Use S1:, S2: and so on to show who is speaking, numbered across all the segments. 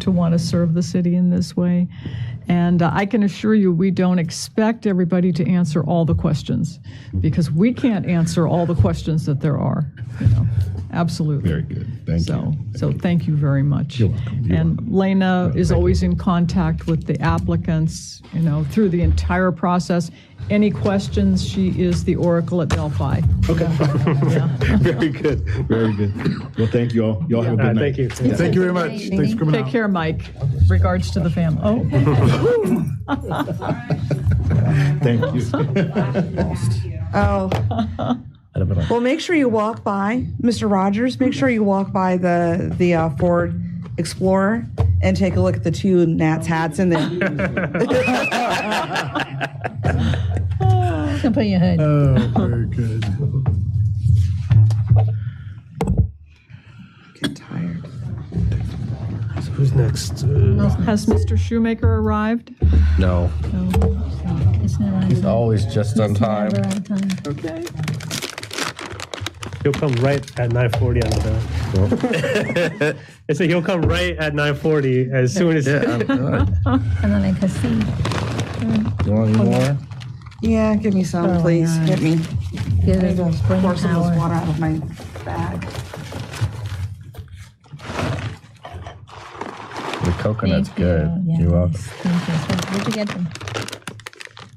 S1: to want to serve the city in this way. And uh, I can assure you, we don't expect everybody to answer all the questions because we can't answer all the questions that there are, you know, absolutely.
S2: Very good. Thank
S1: So,
S2: you.
S1: so thank you very much.
S2: You're welcome. You're
S1: And Lena is always in contact with the applicants, you know, through the entire process. Any questions, she is the oracle at Delphi.
S3: Oh,
S2: Okay. Very good. Very good. Well, thank you all. Y'all have a
S4: Uh,
S2: good night.
S4: Thank you.
S3: Thank you very much. Thanks for coming
S1: Take
S3: out.
S1: care, Mike. Regards to the family. Oh,
S2: Oh. Thank you.
S5: Oh. Well, make sure you walk by, Mr. Rogers, make sure you walk by the, the uh, Ford Explorer and take a look at the two Nats hats in there.
S6: Come put in your hood.
S1: Uh,
S3: Oh, very good.
S5: Get tired.
S4: So Who's next? Uh,
S1: has Mr. Shoemaker arrived?
S7: No,
S6: It's not on.
S7: it's always just on time.
S6: Never on time.
S1: Okay.
S4: He'll come right at 9:40 on the dot. I said he'll come right at 9:40 as soon as.
S7: Yeah, I'm good.
S6: And then I can see.
S7: You want any more?
S5: Yeah, give me some, please.
S6: nice.
S5: Get me.
S6: Give
S5: I need
S6: Oh, it
S5: to
S6: brain
S5: Pour some of this
S6: power.
S5: water out of my bag.
S7: The coconut's
S6: Thank you.
S7: good.
S6: Yeah,
S7: You're welcome.
S6: thanks. Thank you. Where'd you get them?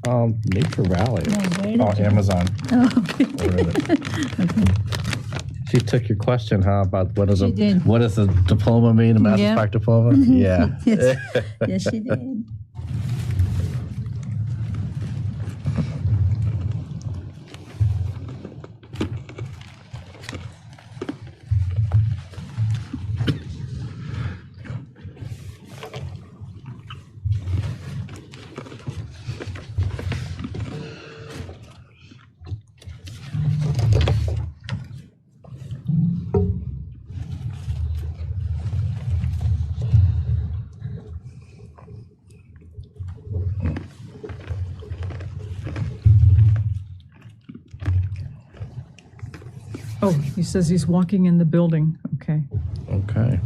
S7: Um, Nature Rally.
S6: No, where did
S7: Oh,
S6: you-
S7: Amazon.
S6: Oh, okay.
S7: Ordered it. She took your question, huh? About what is
S6: She
S7: a
S6: did.
S7: what does a diploma mean? A master's
S6: Yeah.
S7: yeah. diploma? Yeah.
S6: Yes. Yes, she did.
S1: Oh, he says he's walking in the building. Okay.
S7: Okay.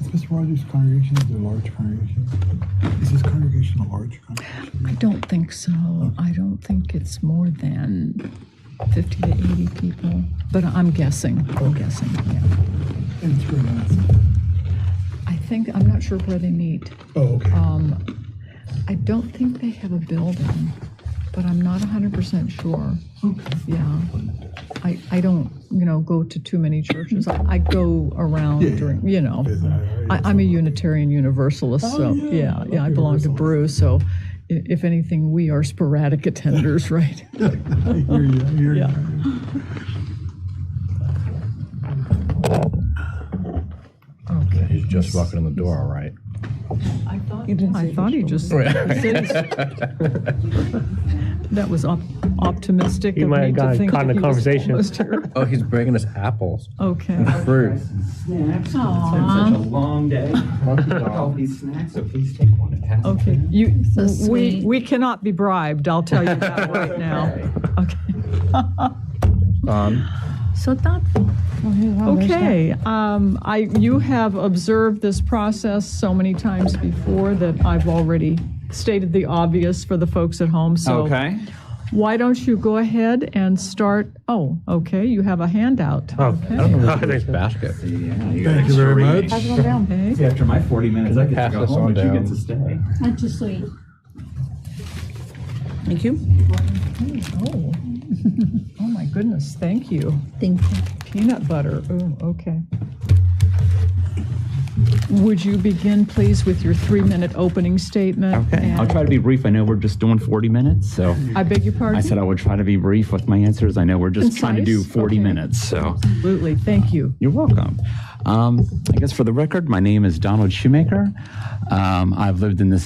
S3: Is Mr. Rogers' congregation is it a large congregation? Is this congregation a large congregation?
S1: I don't think so. I don't think it's more than 50 to 80 people, but I'm guessing. I'm guessing, yeah.
S3: And it's really nice.
S1: I think, I'm not sure where they meet.
S3: Oh, okay.
S1: Um, I don't think they have a building, but I'm not 100% sure. Yeah. I, I don't, you know, go to too many churches. I, I go
S3: Yeah, yeah.
S1: around during, you know.
S3: Is that-
S1: I, I'm a Unitarian Universalist, so,
S3: yeah,
S1: yeah,
S3: I love
S1: yeah, I belong to
S3: Universalists.
S1: Brew, so i- if anything, we are sporadic attenders, right?
S3: I hear you, I hear
S1: Yeah.
S3: you.
S1: Okay.
S7: He's just walking in the door, all right.
S1: I thought he just, he said he's- that was op- optimistic
S4: He
S1: of
S4: might
S1: me
S4: have
S1: to
S4: gotten
S1: think
S4: caught in
S1: that
S4: a
S1: he was
S4: conversation.
S1: almost here.
S7: Oh, he's bringing us apples.
S1: Okay.
S7: Fruit.
S8: Snacks. 'cause It's been such a long day. All these snacks, so please take one and pass it.
S1: Okay, you,
S6: Mm-hmm. So
S1: we,
S6: sweet.
S1: we cannot be bribed, I'll tell you that right now. Okay.
S7: Um,
S6: So thoughtful.
S1: Okay, um, I, you have observed this process so many times before that I've already stated the obvious for the folks at home, so.
S8: Okay.
S1: Why don't you go ahead and start, oh, okay, you have a handout.
S4: Oh,
S7: I don't know who's in this basket.
S8: Yeah, you
S3: Thank you very much.
S1: Okay.
S8: After my 40 minutes, I get
S7: Pass
S8: to go
S7: this on
S8: home, but you
S7: down.
S8: get to stay.
S6: Aren't you sweet?
S5: Thank you.
S1: Oh, oh my goodness, thank you.
S6: Thank you.
S1: Peanut butter, oh, okay. Would you begin, please, with your three-minute opening statement?
S8: Okay, I'll
S1: And-
S8: try to be brief. I know we're just doing 40 minutes, so
S1: I beg your pardon?
S8: I said I would try to be brief with my answers. I know we're just trying to do
S1: Concise?
S8: 40
S1: Okay.
S8: minutes, so.
S1: Absolutely, thank you.
S8: You're welcome. Um, I guess for the record, my name is Donald Shoemaker. Um, I've lived in this